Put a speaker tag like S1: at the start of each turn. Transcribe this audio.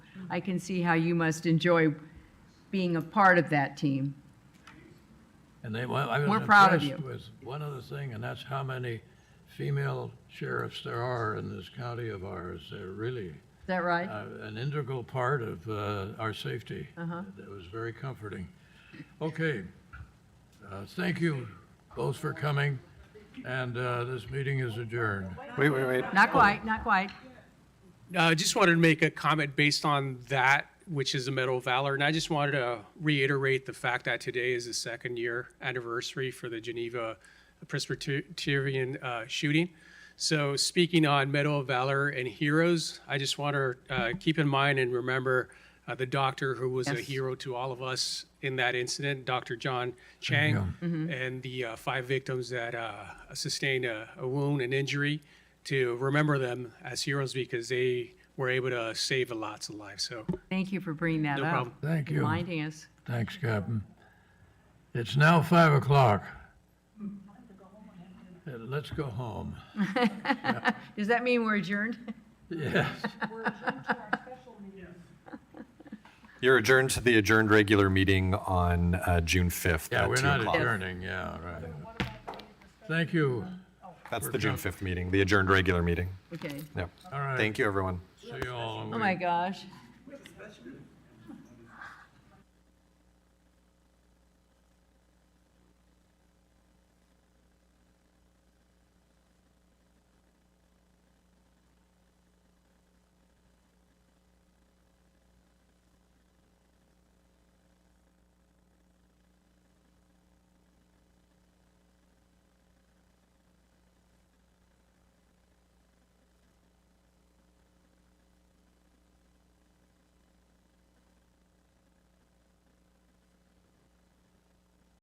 S1: I can see how you must enjoy being a part of that team.
S2: And they, well, I was
S1: We're proud of
S2: impressed
S1: you.
S2: with one other thing, and that's how many female sheriffs there are in this county of ours. They're really
S1: Is that right?
S2: uh, an integral part of uh, our safety.
S1: Uh-huh.
S2: That was very comforting. Okay. Uh, Thank you both for coming, and uh, this meeting is adjourned.
S3: Wait, wait, wait.
S4: oh.
S1: Not quite, not quite.
S4: I Uh, just wanted to make a comment based on that, which is the Medal of Valor. And I just wanted to reiterate the fact that today is the second year anniversary for the Geneva Presbyterian uh, shooting. So, speaking on Medal of Valor and heroes, I just want to uh, keep in mind and remember uh, the doctor who was a
S1: Yes.
S4: hero to all of us in that incident, Dr. John Chang, and the uh, five victims that uh, sustained a, a wound and injury to remember them as heroes because they were able to save lots of lives. So,
S1: Thank you for bringing that
S4: No
S1: up.
S4: problem.
S2: Thank you.
S1: Reminding us.
S2: Thanks, Captain. It's now 5 o'clock. Uh, Let's go home.
S1: Does that mean we're adjourned?
S2: Yes.
S3: You're adjourned to the adjourned regular meeting on uh, June 5th
S2: Yeah,
S3: at
S2: we're
S3: 2
S2: not
S3: o'clock.
S2: adjourning, yeah, right. Thank you.
S3: That's the June 5th meeting, the adjourned regular meeting.
S1: Okay.
S3: Yep.
S2: All right.
S3: Thank you, everyone.
S2: See you all.
S1: Oh, my gosh.